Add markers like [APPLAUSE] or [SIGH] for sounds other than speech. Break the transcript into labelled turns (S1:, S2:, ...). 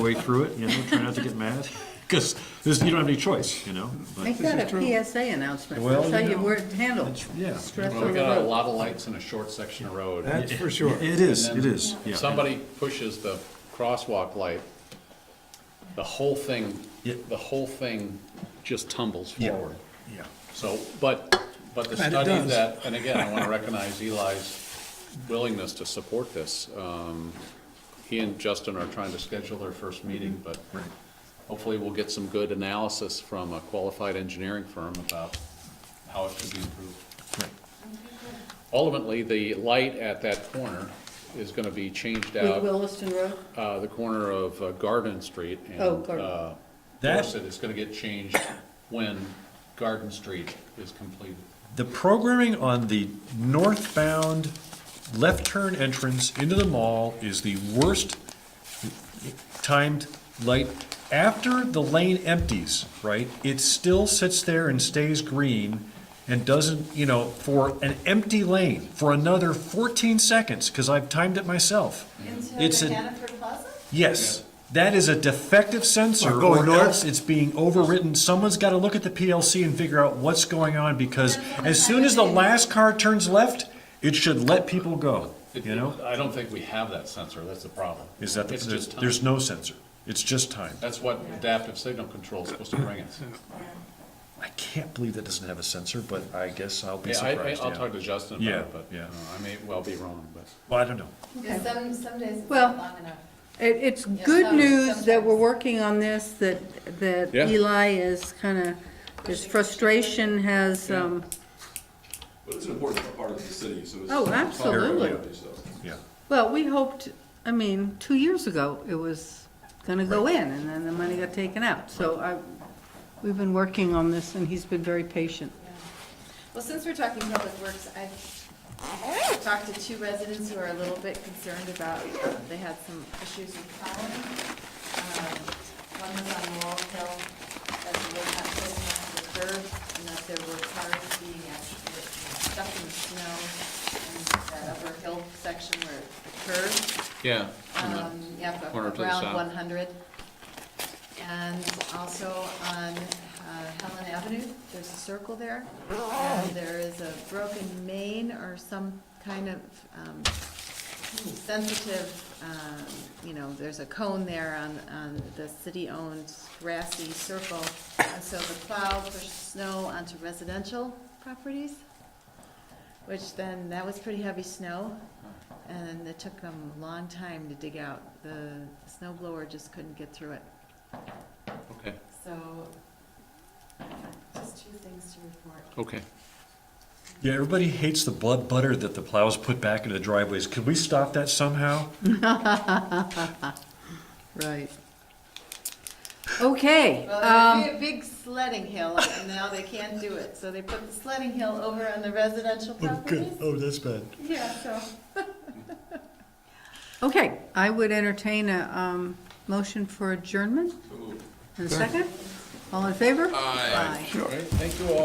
S1: way through it, you know, try not to get mad, [LAUGHS] because you don't have any choice, you know? but-
S2: Make that a PSA announcement,
S1: Well,
S2: that's how
S1: you
S2: you
S1: know,
S2: word handle,
S1: it's- yeah.
S2: stress
S3: Well,
S2: on
S3: we
S2: the
S3: got a
S2: road.
S3: lot of lights in a short section of road.
S4: That's for sure.
S1: It is,
S3: And
S1: it
S3: then
S1: is, yeah.
S3: If somebody pushes the crosswalk light, the whole thing,
S1: Yeah.
S3: the whole thing just tumbles
S1: Yeah.
S3: forward.
S1: Yeah.
S3: So, but, but the
S4: And it
S3: study
S4: does.
S3: that, and again, I want to recognize Eli's willingness to support this. Um, He and Justin are trying to schedule their first meeting, but
S1: Right.
S3: hopefully we'll get some good analysis from a qualified engineering firm about how it could be improved.
S1: Right.
S3: Ultimately, the light at that corner is going to be changed
S2: With
S3: out,
S2: Williston Road,
S3: uh, the corner of uh, Garden Street and
S2: Oh, Garden.
S3: uh,
S1: That-
S3: Dorset is going to get changed when Garden Street is completed.
S1: The programming on the northbound left turn entrance into the mall is the worst timed light. After the lane empties, right, it still sits there and stays green and doesn't, you know, for an empty lane for another 14 seconds, because I've timed it myself. It's
S5: Into
S1: a-
S5: Hannaford Plaza?
S1: Yes, that is a defective
S4: Or
S1: sensor,
S4: going
S1: or
S4: north.
S1: else it's being overwritten. Someone's gotta look at the PLC and figure out what's going on, because as soon as the last car turns left, it should let people go,
S3: It-
S1: you know?
S3: I don't think we have that sensor, that's the problem.
S1: Is that, the-
S3: It's just time.
S1: there's no sensor, it's just time.
S3: That's what adaptive signal control is supposed to bring us.
S1: I can't believe that doesn't have a sensor, but I guess I'll be
S3: Yeah, I,
S1: surprised,
S3: will
S1: yeah.
S3: talk to Justin
S1: Yeah,
S3: about it, but you
S1: yeah.
S3: know, I may well be wrong, but.
S1: Well, I don't know.
S5: Because some, some days it's
S2: Well-
S5: not long enough.
S2: it, it's
S5: Yeah,
S2: good
S5: some-
S2: news that we're
S5: sometimes.
S2: working on this, that, that
S3: Yeah.
S2: Eli is kinda, his frustration has, um,
S6: But it's an important part of the city, so it's.
S2: Oh, absolutely.
S6: So.
S1: Yeah,
S2: well, we hoped, I mean, two years ago, it was gonna go in, and then the money got taken out, so I, we've been working on this, and he's been very patient.
S5: Well, since we're talking public works, I've talked to two residents who are a little bit concerned about, uh, they had some issues with plowing. Um, One was on Laurel Hill, that they were not close enough to the curb, and that there were cars being actually stuck in the snow in that upper hill section where it curves.
S3: Yeah.
S5: Um, yeah, but
S3: Corner to the
S5: around
S3: south.
S5: one hundred. And also on uh, Helen Avenue, there's a circle there. And there is a broken main or some kind of, um, sensitive, um, you know, there's a cone there on, on the city-owned grassy circle. And so the plow pushed snow onto residential properties, which then, that was pretty heavy snow. And it took them a long time to dig out. The snow blower just couldn't get through it.
S3: Okay,
S5: So, just two things to report.
S3: okay.
S1: yeah, everybody hates the blood butter that the plows put back into the driveways. Could we stop that somehow?
S2: Right. Okay,
S5: Well,
S2: um,
S5: there'd be a big sledding hill, and now they can't do it. So they put the sledding hill over on the residential properties.
S1: Oh, that's bad.
S5: Yeah, so.
S2: okay, I would entertain a, um, motion for adjournment. And a second? All in favor? Aye.
S3: All right, thank you all.